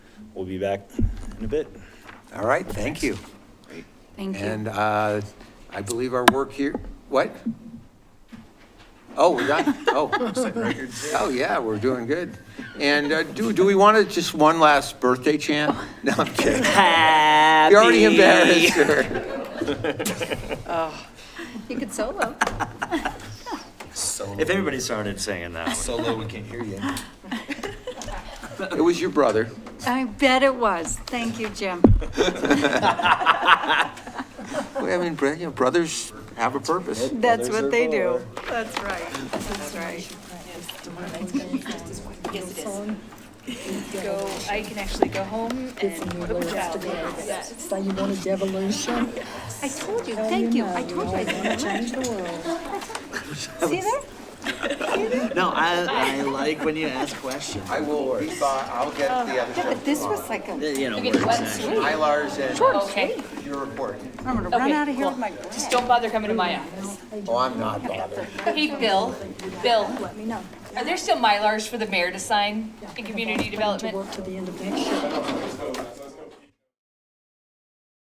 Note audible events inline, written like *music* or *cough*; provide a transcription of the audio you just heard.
We'll be back in a bit. All right, thank you. Thank you. And uh, I believe our work here, what? Oh, we're done, oh. Oh, yeah, we're doing good. And uh, do, do we want to, just one last birthday chant? No, I'm kidding. Happy. You're already embarrassed her. *laughs* You could solo. If everybody started singing that one. Solo, we can't hear you. It was your brother. I bet it was. Thank you, Jim. I mean, bro- you know, brothers have a purpose. That's what they do. That's right. That's right. go, I can actually go home and put my child to bed. So you want a devolution? I told you, thank you. I told you. I didn't Change the world. See that? No, I, I like when you ask questions. I will, be by- I'll get the other Yeah, but this was like a, You know, words actually. Mylars Okay, and your report. I'm gonna run Okay, out of here cool. with my bread. just don't bother coming to my office. Oh, I'm not bothered. Hey, Bill, Bill, Let me know. are there still Mylars for the mayor to sign in community To development? work to the end of next year.